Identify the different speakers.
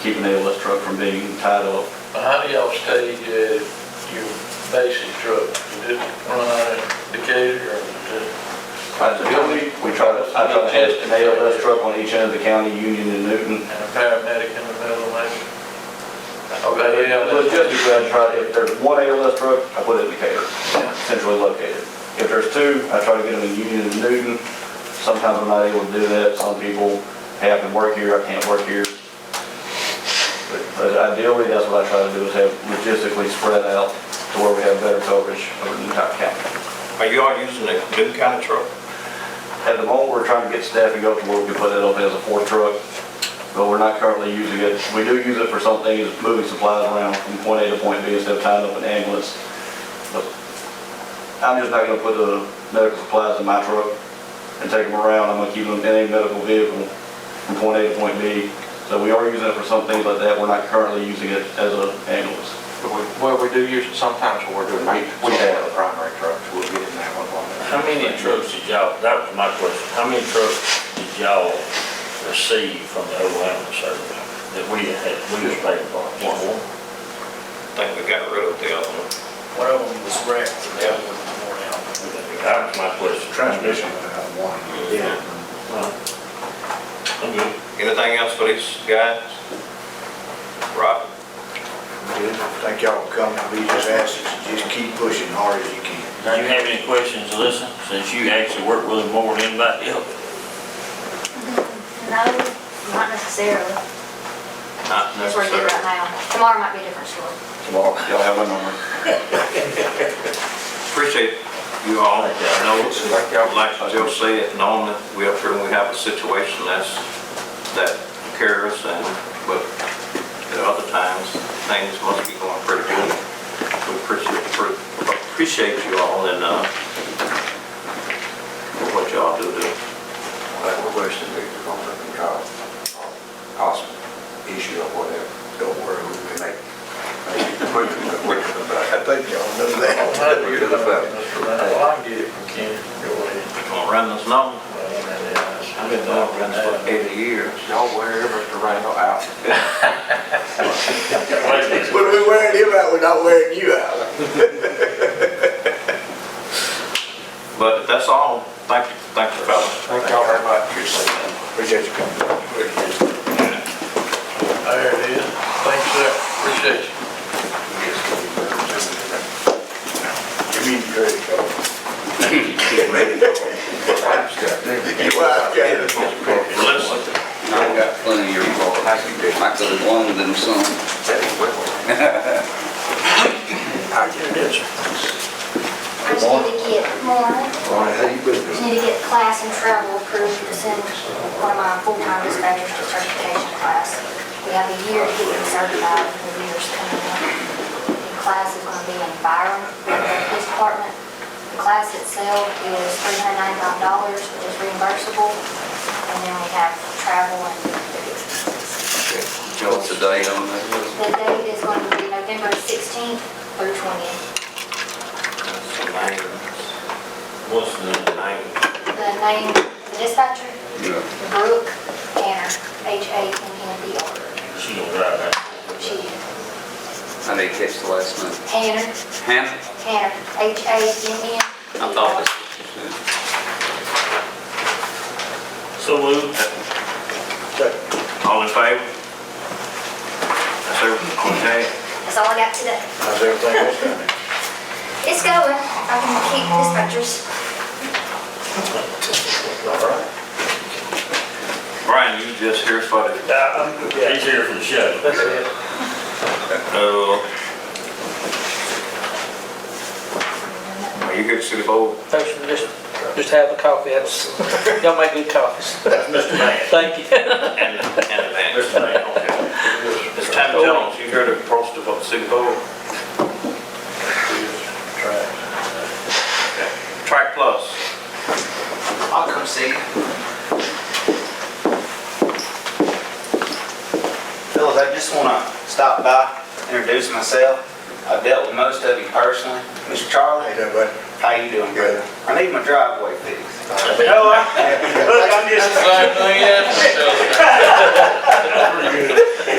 Speaker 1: keeping the LS truck from being tied up.
Speaker 2: But How do y'all stay, uh, your basic truck, you just run out of Decatur or just?
Speaker 1: We we try to, I try to have an ALS truck on each end of the county, Union and Newton.
Speaker 2: And a paramedic in the middle, maybe? Okay, yeah,
Speaker 1: But
Speaker 2: that's,
Speaker 1: just to go and try, if there's one ALS truck, I put it in Decatur, centrally located. If there's two, I try to get them in Union and Newton. Sometimes I'm not able to do that, some people, hey, I can work here, I can't work here. But- But ideally, that's what I try to do, is have logistically spread out to where we have better coverage over the entire county.
Speaker 3: Are you all using a new kind of truck?
Speaker 1: At the moment, we're trying to get staffing up to where we can put it up as a four truck, but we're not currently using it. We do use it for some things, moving supplies around from point A to point B instead of tying up an ambulance. But I'm just not gonna put the medical supplies in my truck and take them around. I'm gonna keep them in a medical vehicle from point A to point B. So we are using it for some things like that. We're not currently using it as an ambulance.
Speaker 4: But we- Well, we do use it sometimes when we're doing maintenance.
Speaker 1: We
Speaker 4: on
Speaker 1: have.
Speaker 4: the Primary trucks, we'll get in that one.
Speaker 5: How many trucks did y'all, that was my question, how many trucks did y'all receive from the overwhelming service that we had, we was paying for? One.
Speaker 3: I think we got rid of the other one.
Speaker 6: One of them was wrecked, and the other one was worn out.
Speaker 5: That was my question.
Speaker 4: Transmission would have one.
Speaker 3: Yeah.
Speaker 5: I'm good.
Speaker 3: Anything else for these guys? Rob?
Speaker 7: Thank y'all for coming, we just ask that you just keep pushing hard as you can.
Speaker 5: Do you have any questions, Alyssa, since you actually work with them more than anybody else?
Speaker 8: No, not necessarily.
Speaker 3: Not
Speaker 8: That's where it is right
Speaker 3: necessarily.
Speaker 8: now. Tomorrow might be a different story.
Speaker 1: Tomorrow, y'all have my number.
Speaker 3: Appreciate you all. I know, it's- like Joe said, knowing that we up here and we have a situation that's, that cares and, but at other times, things must be going pretty good. We appreciate, appreciate you all and, uh, for what y'all do to
Speaker 4: Like we're wishing we could go up and try a hospital uh, issue or whatever. Don't worry, we can make, make it quicker, quicker than that. I think y'all know
Speaker 2: I'll
Speaker 4: We're good about it.
Speaker 2: Well, I can get it from Ken, go ahead.
Speaker 3: Gonna run this long,
Speaker 2: I've
Speaker 3: run this for eighty years.
Speaker 4: Y'all wear Mr. Randall out.
Speaker 7: What are we wearing him out, we're not wearing you out.
Speaker 3: But that's all. Thank you, thank you, fellas.
Speaker 4: Thank y'all very much.
Speaker 7: Appreciate you coming.
Speaker 2: There it is. Thanks, sir. Appreciate you.
Speaker 7: Give me the credit card. You are, okay.
Speaker 3: Listen,
Speaker 9: I've got plenty of your fault. I could have won them some.
Speaker 8: I just need to get more,
Speaker 7: Ronnie, how you been?
Speaker 8: just need to get class and travel approved to send one of my full-time dispatchers to certification class. We have a year to get them certified, and the year's coming up. The class is gonna be in Byron, at the police department. The class itself is three hundred ninety-nine dollars, which is reimbursable. And then we have travel and
Speaker 9: What's the date on that?
Speaker 8: The date is going to be November 16th through 20th.
Speaker 3: that's the name.
Speaker 5: What's the,
Speaker 3: The name.
Speaker 8: The name, the dispatcher,
Speaker 9: Yeah.
Speaker 8: Brooke Tanner, H-A-N-N-E-R.
Speaker 5: she gonna drive that?
Speaker 8: E She is
Speaker 9: I didn't catch the last name.
Speaker 8: Tanner,
Speaker 9: Hannah?
Speaker 8: Tanner, H-A-N-N.
Speaker 9: I thought that's what you
Speaker 5: So
Speaker 9: said.
Speaker 5: moved.
Speaker 3: All in favor? That's everything, okay?
Speaker 8: That's all I got today.
Speaker 7: How's everything else down there?
Speaker 8: It's going. I'm going to keep dispatchers.
Speaker 3: Brian, you just here for the,
Speaker 5: He's here for the show.
Speaker 2: That's it.
Speaker 3: uh, are you here to see the board?
Speaker 6: Thanks for just, just having a coffee, that's, y'all make good coffees. Thank you.
Speaker 3: And, and Vance. Okay. It's Tom Jones, you here to approach the vote, see the board? Track Plus.
Speaker 6: I'll come see you.
Speaker 10: Fellas, I just want to stop by, introduce myself. I've dealt with most of you personally. Mr. Charlie,
Speaker 7: Hey, there, buddy.
Speaker 10: how you doing, brother? I need my driveway fixed.
Speaker 3: No, I, look, I'm just.
Speaker 2: Same thing, yeah.